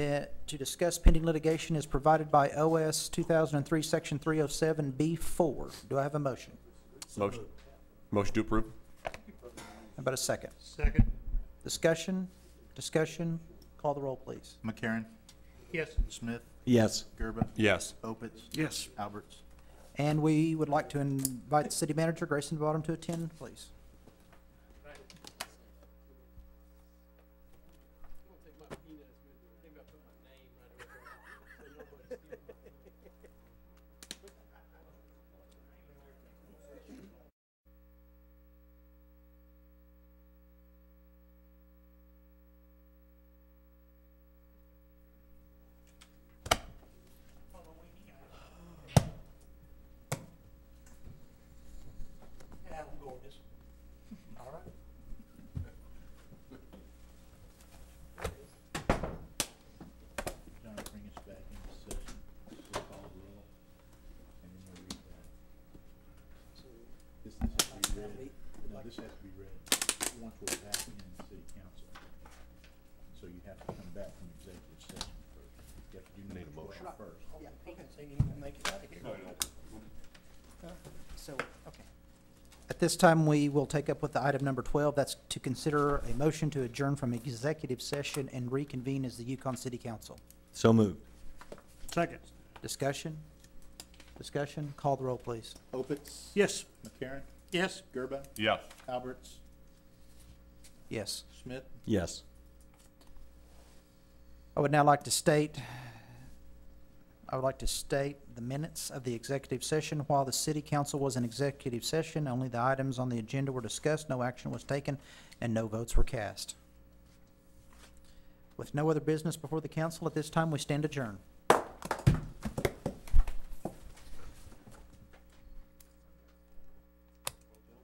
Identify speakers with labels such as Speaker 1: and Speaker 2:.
Speaker 1: eh, to discuss pending litigation is provided by OS 2003, Section 307B4. Do I have a motion?
Speaker 2: Motion, motion to approve?
Speaker 1: How about a second?
Speaker 3: Second,
Speaker 1: Discussion, discussion, call the roll, please.
Speaker 4: McCarron.
Speaker 3: yes.
Speaker 4: Smith.
Speaker 5: Yes.
Speaker 4: Gerba.
Speaker 2: Yes.
Speaker 4: Opitz.
Speaker 5: Yes.
Speaker 4: Alberts.
Speaker 1: And we would like to invite the city manager, Grayson Bottom, to attend, please.
Speaker 3: Yeah, we'll go with this. All right.
Speaker 4: John, bring us back into session. So call the roll. And then we'll read that. This this has to be read. No, this has to be read once we're back in city council. So you have to come back from executive session first. You have to do
Speaker 2: Need a
Speaker 4: number
Speaker 2: motion.
Speaker 4: twelve first.
Speaker 3: They need to make it out of here.
Speaker 1: So, okay. At this time, we will take up with the item number 12. That's to consider a motion to adjourn from executive session and reconvene as the Yukon City Council.
Speaker 5: So moved.
Speaker 3: Second,
Speaker 1: Discussion, discussion, call the roll, please.
Speaker 4: Opitz.
Speaker 3: yes.
Speaker 4: McCarron.
Speaker 3: Yes.
Speaker 4: Gerba.
Speaker 2: Yeah.
Speaker 4: Alberts.
Speaker 1: Yes.
Speaker 4: Smith.
Speaker 5: Yes.
Speaker 1: I would now like to state, I would like to state the minutes of the executive session. While the city council was in executive session, only the items on the agenda were discussed, no action was taken, and no votes were cast. With no other business before the council, at this time, we stand adjourned.